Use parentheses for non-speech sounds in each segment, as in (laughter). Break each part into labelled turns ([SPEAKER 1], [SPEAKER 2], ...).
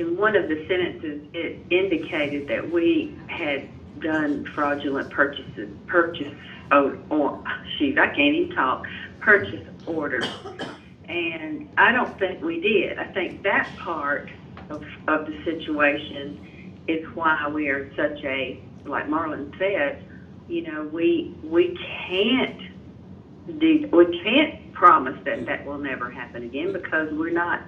[SPEAKER 1] In one of the sentences, it indicated that we had done fraudulent purchases, purchase, oh, or, shoot, I can't even talk, purchase orders. And I don't think we did. I think that part of, of the situation is why we are such a, like Marlon said, you know, we, we can't do, we can't promise that that will never happen again because we're not,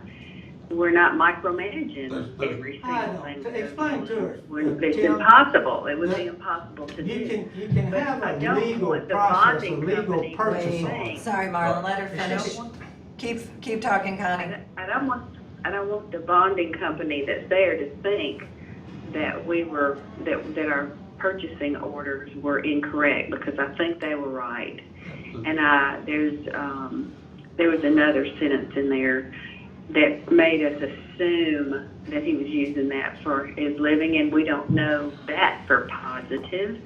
[SPEAKER 1] we're not micromanaging
[SPEAKER 2] There's- there's-
[SPEAKER 1] every
[SPEAKER 3] I
[SPEAKER 1] single
[SPEAKER 3] know.
[SPEAKER 1] thing.
[SPEAKER 3] To explain to her,
[SPEAKER 1] When- It's
[SPEAKER 3] Tim,
[SPEAKER 1] impossible, it would be
[SPEAKER 3] Yeah.
[SPEAKER 1] impossible to
[SPEAKER 3] You
[SPEAKER 1] do.
[SPEAKER 3] can, you can
[SPEAKER 1] But
[SPEAKER 3] have
[SPEAKER 1] I
[SPEAKER 3] a
[SPEAKER 1] don't
[SPEAKER 3] legal
[SPEAKER 1] want the
[SPEAKER 3] process, a
[SPEAKER 1] bonding
[SPEAKER 3] legal
[SPEAKER 1] company
[SPEAKER 3] purchase
[SPEAKER 1] to
[SPEAKER 3] order.
[SPEAKER 1] think-
[SPEAKER 4] Sorry, Marlon, let her
[SPEAKER 1] I
[SPEAKER 4] finish.
[SPEAKER 1] don't want,
[SPEAKER 4] Keep, keep talking,
[SPEAKER 1] I
[SPEAKER 4] Connie.
[SPEAKER 1] don't- I don't want, I don't want the bonding company that's there to think that we were, that, that our purchasing orders were incorrect because I think they were right. And I, there's, um, there was another sentence in there that made us assume that he was using that for his living, and we don't know that for positive.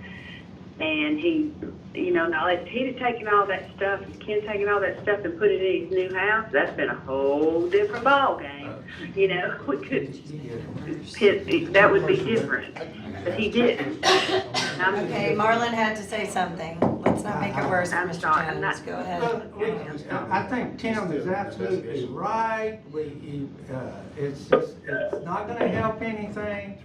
[SPEAKER 1] And he, you know, now if he'd have taken all that stuff, Ken taken all that stuff and put it in his new house, that's been a whole different ballgame. You know, we could, pit- that would be different, but he didn't. And I'm-
[SPEAKER 4] Okay, Marlon had to say something. Let's not make it worse for
[SPEAKER 1] Uh, I'm
[SPEAKER 4] Mr.
[SPEAKER 1] sorry, I'm
[SPEAKER 4] Jones.
[SPEAKER 1] not- Oh,
[SPEAKER 3] Well,
[SPEAKER 4] Go
[SPEAKER 3] we-
[SPEAKER 4] ahead.
[SPEAKER 3] I I think Tim is absolutely right, we, you, uh, it's, just- it's not gonna help anything.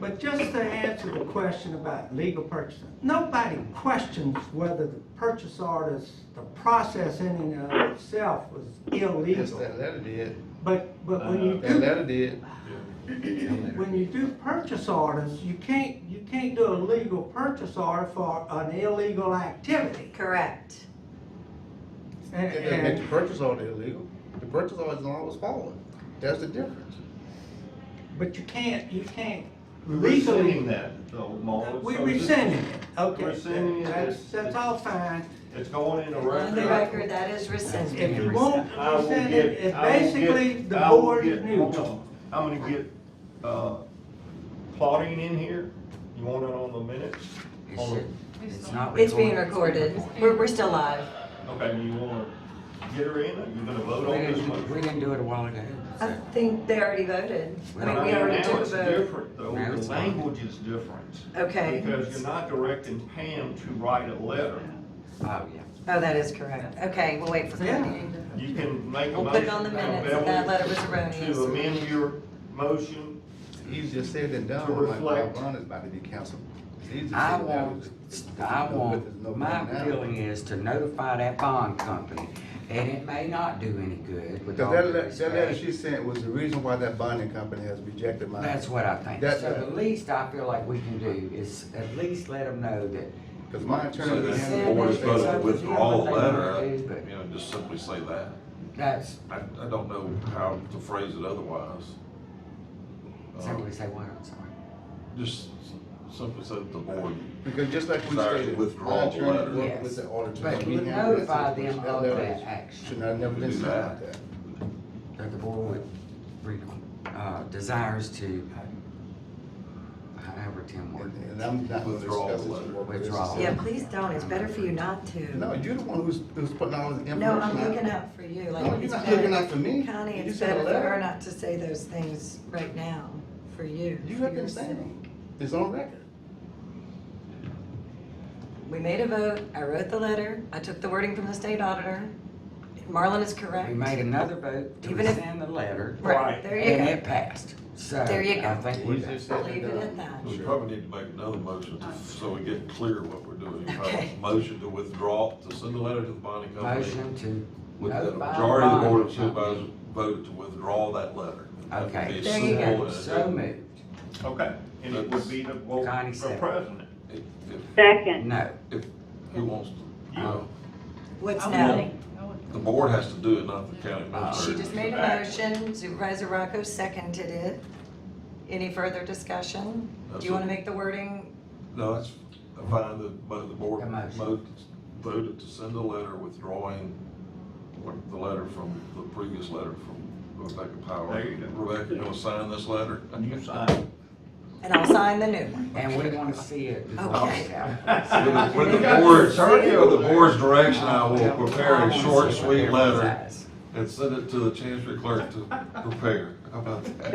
[SPEAKER 3] But just to answer the question about legal purchasing, nobody questions whether the purchase orders, the process in and of itself was
[SPEAKER 5] Yes,
[SPEAKER 3] illegal.
[SPEAKER 5] that letter did,
[SPEAKER 3] But, but when you
[SPEAKER 5] that
[SPEAKER 3] do
[SPEAKER 5] letter did.
[SPEAKER 3] when you do purchase orders, you can't, you can't do a legal purchase order for an illegal activity.
[SPEAKER 4] Correct.
[SPEAKER 3] And,
[SPEAKER 5] It doesn't make
[SPEAKER 3] and
[SPEAKER 5] the purchase order illegal, the purchase order is always followed, that's the difference.
[SPEAKER 3] But you can't, you can't
[SPEAKER 6] Rescinding
[SPEAKER 3] legally.
[SPEAKER 6] that, though, Marlon.
[SPEAKER 3] We
[SPEAKER 6] so this-
[SPEAKER 3] rescinding it,
[SPEAKER 6] Rescinding
[SPEAKER 3] okay,
[SPEAKER 6] it.
[SPEAKER 3] that's, that's all fine.
[SPEAKER 6] It's going in the
[SPEAKER 4] On the
[SPEAKER 6] record.
[SPEAKER 4] record, that is rescinded.
[SPEAKER 3] If you won't
[SPEAKER 6] I will
[SPEAKER 3] rescind it,
[SPEAKER 6] get-
[SPEAKER 3] it's
[SPEAKER 6] I will
[SPEAKER 3] basically
[SPEAKER 6] get-
[SPEAKER 3] the
[SPEAKER 6] I will
[SPEAKER 3] board is
[SPEAKER 6] get- hold
[SPEAKER 3] neutral.
[SPEAKER 6] on. I'm gonna get, uh, Claudine in here, you want it on the minutes? On the-
[SPEAKER 7] It's not
[SPEAKER 4] It's being recorded. We're, we're still live.
[SPEAKER 6] Okay, you wanna get her in, or you gonna vote
[SPEAKER 7] We
[SPEAKER 6] on this
[SPEAKER 7] didn't, we
[SPEAKER 6] one?
[SPEAKER 7] didn't do it a while ago.
[SPEAKER 4] I think they already voted. I mean, we
[SPEAKER 6] Now,
[SPEAKER 4] already took a
[SPEAKER 6] Now it's
[SPEAKER 4] vote.
[SPEAKER 6] different, though,
[SPEAKER 7] Now
[SPEAKER 6] the
[SPEAKER 7] it's-
[SPEAKER 6] language is different,
[SPEAKER 4] Okay.
[SPEAKER 6] because you're not directing Pam to write a letter.
[SPEAKER 7] Oh, yeah.
[SPEAKER 4] Oh, that is correct. Okay, we'll wait for Connie.
[SPEAKER 6] You can make a
[SPEAKER 4] We'll
[SPEAKER 6] motion.
[SPEAKER 4] put it on the minutes that that letter was erroneous.
[SPEAKER 6] To amend your motion
[SPEAKER 5] Easier said than done,
[SPEAKER 6] To
[SPEAKER 5] like
[SPEAKER 6] reflect.
[SPEAKER 5] Bob Brown is about to be canceled. It's easier
[SPEAKER 7] I
[SPEAKER 5] said than done.
[SPEAKER 7] want, I want, my feeling is to notify that bond company, and it may not do any good with
[SPEAKER 5] Because
[SPEAKER 7] all
[SPEAKER 5] that,
[SPEAKER 7] due
[SPEAKER 5] le- that letter
[SPEAKER 7] respect.
[SPEAKER 5] she sent was the reason why that bonding company has rejected my.
[SPEAKER 7] That's what I think.
[SPEAKER 5] That-
[SPEAKER 7] So the least I feel like we can do is at least let them know that.
[SPEAKER 5] Because my
[SPEAKER 8] So
[SPEAKER 5] attorney.
[SPEAKER 8] the
[SPEAKER 5] handled
[SPEAKER 8] board is
[SPEAKER 5] it.
[SPEAKER 8] supposed to withdraw the letter, you know, just simply say that.
[SPEAKER 7] That's,
[SPEAKER 8] I, I don't know how to phrase it otherwise. Uh,
[SPEAKER 7] somebody say what, I'm sorry.
[SPEAKER 8] Just simply say that the board,
[SPEAKER 5] Because just like we
[SPEAKER 8] Sorry,
[SPEAKER 5] stated,
[SPEAKER 8] withdraw
[SPEAKER 5] my
[SPEAKER 8] the
[SPEAKER 5] attorney
[SPEAKER 8] letter.
[SPEAKER 5] worked with
[SPEAKER 7] Yes.
[SPEAKER 5] the auditor.
[SPEAKER 7] But
[SPEAKER 5] We
[SPEAKER 7] you
[SPEAKER 5] handled it
[SPEAKER 7] notify
[SPEAKER 5] since
[SPEAKER 7] them
[SPEAKER 5] that
[SPEAKER 7] of
[SPEAKER 5] letter
[SPEAKER 7] that action,
[SPEAKER 5] Should not have never been
[SPEAKER 8] Do
[SPEAKER 5] sent
[SPEAKER 8] that.
[SPEAKER 5] out there.
[SPEAKER 7] that the board re- uh, desires to, uh, however Tim worded it.
[SPEAKER 5] And and I'm not gonna
[SPEAKER 8] Withdraw the
[SPEAKER 5] discuss this.
[SPEAKER 8] letter.
[SPEAKER 5] with what
[SPEAKER 7] Withdraw.
[SPEAKER 5] this
[SPEAKER 4] Yeah,
[SPEAKER 5] is.
[SPEAKER 4] please don't. It's better for you not
[SPEAKER 5] No,
[SPEAKER 4] to.
[SPEAKER 5] you're the one who's, who's putting all this information
[SPEAKER 4] No,
[SPEAKER 5] out.
[SPEAKER 4] I'm looking out for you.
[SPEAKER 5] No,
[SPEAKER 4] Like,
[SPEAKER 5] you're
[SPEAKER 4] it's
[SPEAKER 5] not looking
[SPEAKER 4] better.
[SPEAKER 5] out for me.
[SPEAKER 4] Connie,
[SPEAKER 5] You
[SPEAKER 4] it's
[SPEAKER 5] sent
[SPEAKER 4] better
[SPEAKER 5] a
[SPEAKER 4] for her
[SPEAKER 5] letter.
[SPEAKER 4] not to say those things right now, for you.
[SPEAKER 5] You
[SPEAKER 4] for
[SPEAKER 5] have been
[SPEAKER 4] your
[SPEAKER 5] saying
[SPEAKER 4] sake.
[SPEAKER 5] them. It's on record.
[SPEAKER 4] We made a vote, I wrote the letter, I took the wording from the state auditor. Marlon is correct.
[SPEAKER 7] We made another vote to
[SPEAKER 4] Even if-
[SPEAKER 7] rescind the letter,
[SPEAKER 4] Right, there
[SPEAKER 7] and
[SPEAKER 4] you
[SPEAKER 7] it passed. So,
[SPEAKER 4] There you go.
[SPEAKER 7] I think we're
[SPEAKER 5] Easier
[SPEAKER 7] done.
[SPEAKER 5] said uh,
[SPEAKER 4] go.
[SPEAKER 5] than
[SPEAKER 4] Leave it at
[SPEAKER 5] done.
[SPEAKER 4] that.
[SPEAKER 8] we probably need to make another motion to- so we get clear what we're doing. Uh,
[SPEAKER 4] Okay.
[SPEAKER 8] Motion to withdraw, to send the letter to the bonding company.
[SPEAKER 7] Motion to
[SPEAKER 8] With the
[SPEAKER 7] notify
[SPEAKER 8] majority of the
[SPEAKER 7] bond
[SPEAKER 8] board of
[SPEAKER 7] company.
[SPEAKER 8] supervisors voted to withdraw that letter. That would
[SPEAKER 7] Okay.
[SPEAKER 8] be
[SPEAKER 4] There you go.
[SPEAKER 8] simple and-
[SPEAKER 7] So moved.
[SPEAKER 6] Okay, and it would be the, well,
[SPEAKER 7] Connie
[SPEAKER 6] the
[SPEAKER 7] said.
[SPEAKER 6] president.
[SPEAKER 8] If, if-
[SPEAKER 1] Second,
[SPEAKER 7] No.
[SPEAKER 8] if, who wants to, you know,
[SPEAKER 4] What's now?
[SPEAKER 7] No.
[SPEAKER 8] the board has to do it, not the county administrator.
[SPEAKER 4] She just made a motion, Supervisor Rocco seconded it. Any further discussion? Do you want to make the wording?
[SPEAKER 8] No, that's fine, the, but the board
[SPEAKER 7] The motion.
[SPEAKER 8] voted- voted to send a letter withdrawing what- the letter from, the previous letter from Rebecca Power.
[SPEAKER 6] There you go.
[SPEAKER 8] Rebecca, you gonna sign this letter?
[SPEAKER 6] (laughs) You sign.
[SPEAKER 4] And I'll sign the new one.
[SPEAKER 7] And we want to see it before
[SPEAKER 4] Okay.
[SPEAKER 7] it's out.
[SPEAKER 8] With the- with
[SPEAKER 6] You got
[SPEAKER 8] the board's,
[SPEAKER 6] attorney over
[SPEAKER 8] with the
[SPEAKER 6] there.
[SPEAKER 8] board's direction, I will
[SPEAKER 7] Well, I
[SPEAKER 8] prepare a
[SPEAKER 7] wanna
[SPEAKER 8] short,
[SPEAKER 7] see what
[SPEAKER 8] sweet
[SPEAKER 7] everyone
[SPEAKER 8] letter
[SPEAKER 7] says. (laughs)
[SPEAKER 8] and send it to the chancery clerk to prepare. How about that?